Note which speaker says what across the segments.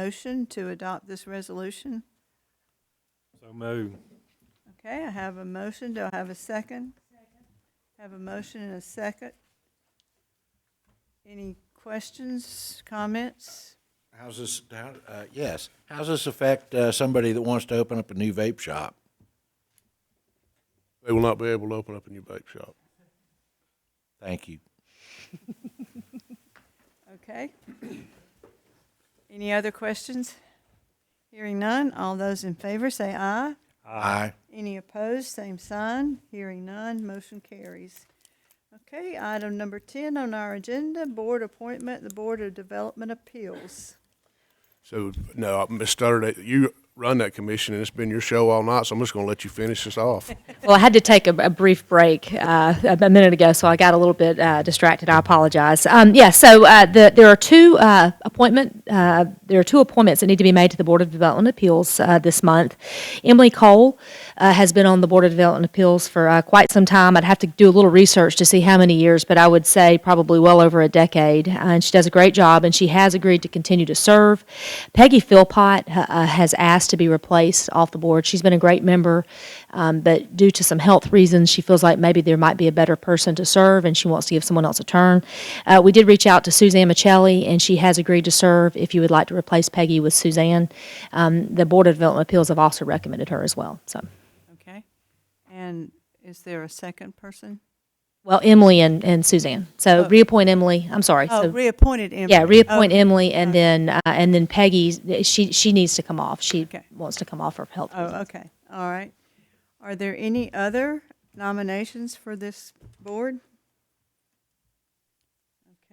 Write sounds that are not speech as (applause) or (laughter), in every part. Speaker 1: motion to adopt this resolution?
Speaker 2: So moved.
Speaker 1: Okay, I have a motion. Do I have a second? Have a motion and a second. Any questions, comments?
Speaker 3: How's this, how, uh, yes, how's this affect, uh, somebody that wants to open up a new vape shop?
Speaker 4: They will not be able to open up a new vape shop.
Speaker 3: Thank you.
Speaker 1: Okay. (clears throat) Any other questions? Hearing none, all those in favor say aye.
Speaker 3: Aye.
Speaker 1: Any opposed, same sign. Hearing none, motion carries. Okay, item number 10 on our agenda, board appointment, the Board of Development Appeals.
Speaker 4: So, no, Ms. Stutter, you run that commission, and it's been your show all night, so I'm just going to let you finish this off.
Speaker 5: Well, I had to take a, a brief break uh, a a minute ago, so I got a little bit uh, distracted. I apologize. Um, yeah, so uh, the, there are two uh, appointment uh, there are two appointments that need to be made to the Board of Development Appeals uh, this month. Emily Cole uh, has been on the Board of Development Appeals for uh, quite some time. I'd have to do a little research to see how many years, but I would say probably well over a decade. Uh, and she does a great job, and she has agreed to continue to serve. Peggy Philpott uh, uh, has asked to be replaced off the board. She's been a great member, um, but due to some health reasons, she feels like maybe there might be a better person to serve, and she wants to give someone else a turn. Uh, we did reach out to Suzanne Michelli, and she has agreed to serve. If you would like to replace Peggy with Suzanne, um, the Board of Development Appeals have also recommended her as well. So,
Speaker 1: Okay. And is there a second person?
Speaker 5: well, Emily and, and Suzanne. So
Speaker 1: Oh.
Speaker 5: reappoint Emily. I'm sorry.
Speaker 1: Oh,
Speaker 5: so,
Speaker 1: reappointed Emily.
Speaker 5: yeah, reappoint
Speaker 1: Oh,
Speaker 5: Emily, and then uh, and then Peggy. She she needs to come off. She
Speaker 1: Okay.
Speaker 5: wants to come off for health.
Speaker 1: Oh, okay, all right. Are there any other nominations for this board?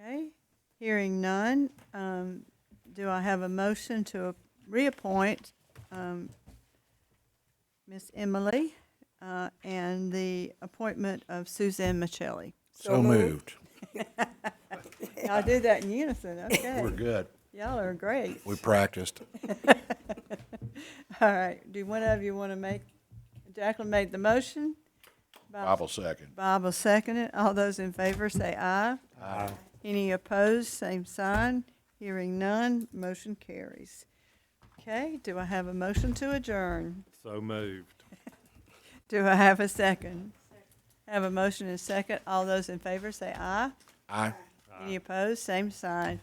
Speaker 1: Okay, hearing none, um, do I have a motion to reappoint, um, Ms. Emily, uh, and the appointment of Suzanne Michelli?
Speaker 3: So moved.
Speaker 1: I'll do that in unison,
Speaker 3: We're
Speaker 1: okay.
Speaker 3: good.
Speaker 1: Y'all are great.
Speaker 3: We practiced.
Speaker 1: All right, do one of you want to make, Jacqueline made the motion?
Speaker 3: Bob will second.
Speaker 1: Bob will second it. All those in favor say aye. Aye. Any opposed, same sign. Hearing none, motion carries. Okay, do I have a motion to adjourn?
Speaker 2: So moved.
Speaker 1: Do I have a second? Have a motion and a second. All those in favor say aye.
Speaker 3: Aye.
Speaker 1: Any opposed, same sign.